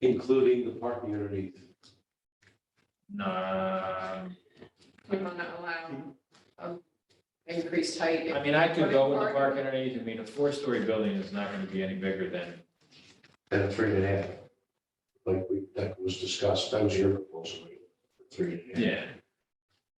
including the parking underneath. Nah, We want to allow um, increased height. I mean, I could go with the park underneath, I mean, a four-story building is not gonna be any bigger than, And three and a half. Like we, that was discussed, that was your proposal, right? three and a half. yeah.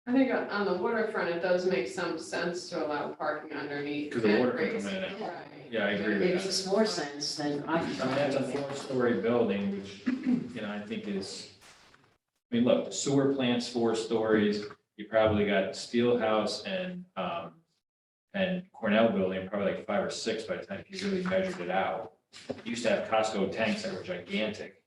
I think on- on the waterfront, it does make some sense to allow parking underneath. 'Cause the and water can raise- come in and- Right. Yeah, I agree It with that. makes more sense than I. I mean, that's a four-story building, which, you know, I think is, I mean, look, sewer plant's four stories, you probably got Steelhouse and, um, and Cornell Building, probably like five or six by the time you really measured it out. Used to have Costco tanks that were gigantic.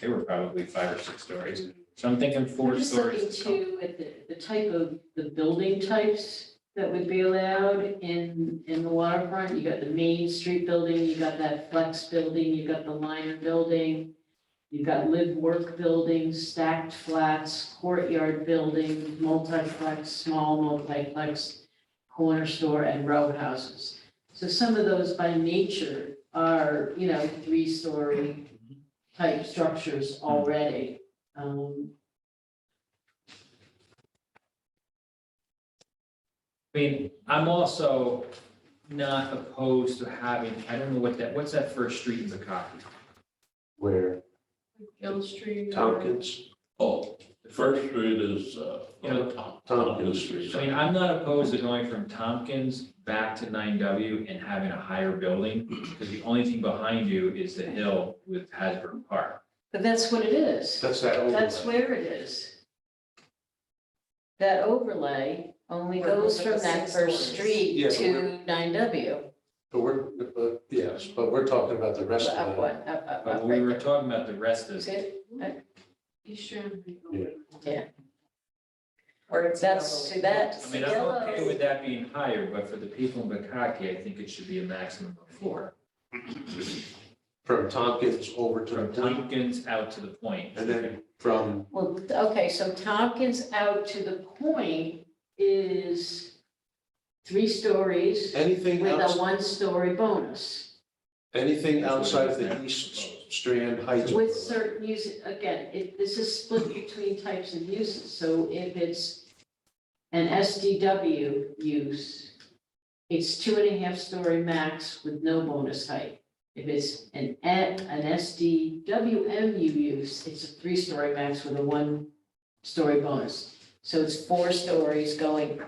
They were probably five or six stories, so I'm thinking I'm four just looking stories. too at the, the type of, the building types that would be allowed in, in the waterfront. You got the Main Street building, you got that flex building, you got the liner building, you've got live-work buildings, stacked flats, courtyard building, multiplex, small multiplex, corner store, and row houses. So some of those by nature are, you know, three-story type structures already. Um, I mean, I'm also not opposed to having, I don't know what that, what's that first street in Zacatey? Where Hill Street. or- Tompkins, Oh, the first street is, uh, Yeah. Tom- Tompkins Tompkins Street. Street. I mean, I'm not opposed to going from Tompkins back to nine W and having a higher building, because the only thing behind you is the hill with Hasbro Park. But that's what it is. that's that That's overlay. where it is. That overlay only Where it goes goes up from to that six first stories. street Yeah, but to nine W. But we're, but, yes, but we're talking about the rest Up of it. one, up, up, But up, we right were there. talking about the rest is, Good. Eastern. Yeah. Or it's That's, yellow. that's I the mean, I'm okay yellow. with that being higher, but for the people in Bakaki, I think it should be a maximum of four. From Tompkins over to the From point, Tompkins out to the point. and then from, Well, okay, so Tompkins out to the point is three stories anything with a else, one-story bonus. anything outside of the East Strand Heights. With certain use, again, it, this is split between types of uses, so if it's an SDW use, it's two and a half story max with no bonus height. If it's an, A- an SDWMU use, it's a three story max with a one story bonus. So it's four stories going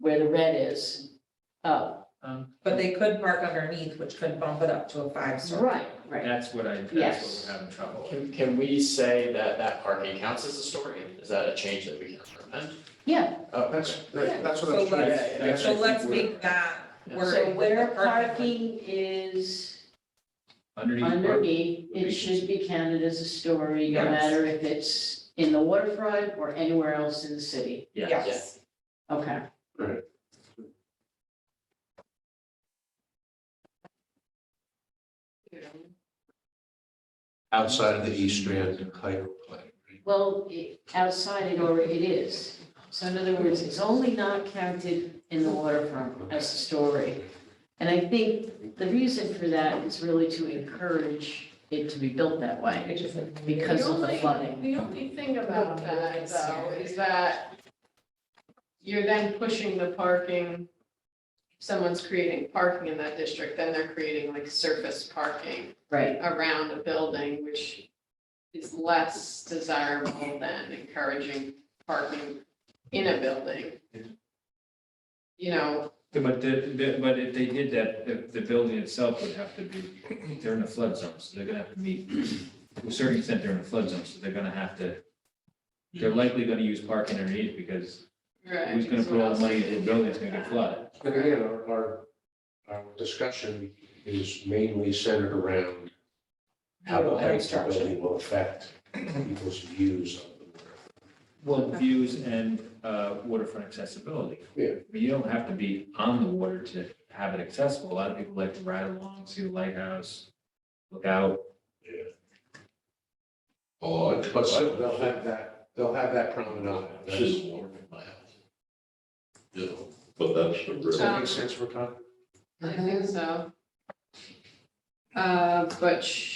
where the red is up. Um, But they could park underneath, which could bump it up to a five story. Right, right. That's what I, that's Yes. what we're having trouble with. Can, can we say that that parking counts as a story? Is that a change that we can recommend? Yeah, Oh, That's, okay. that's what I'm trying. Yeah, yeah, yeah. that's- So let's make that word. so where the parking- parking is. Underneath, park- underneath, it should be counted as a story, no Yes. matter if it's in the waterfront or anywhere else in the city. yeah, Yes, Okay. Right. Outside of the East Strand Heights overlay. Well, it- outside it or it is. So in other words, it's only not counted in the waterfront as a story. And I think the reason for that is really to encourage it to be built that way it just like because of the only- flooding. The only thing about that though is that you're then pushing the parking. If someone's creating parking in that district, then they're creating like surface parking Right, around a building, which is less desirable than encouraging parking in a building. You know, but the, the, but if they did that, the, the building itself would have to be, they're in a flood zone, so they're gonna have to meet. To a certain extent, they're in a flood zone, so they're gonna have to, they're likely gonna use parking underneath because right. who's gonna because put what all the else money do into you a do? building that's gonna get flooded? And again, our, our, our discussion is mainly centered around how the height of the building will affect people's views of the water. Well, views and, uh, waterfront accessibility. Yeah. But you don't have to be on the water to have it accessible. A lot of people like to ride along, see the lighthouse, look out. Oh, I- But still, they'll have that, they'll have that promenade. This is warm in my house. You know, but that's the Does real. that make sense for Tom? I think so. Uh, but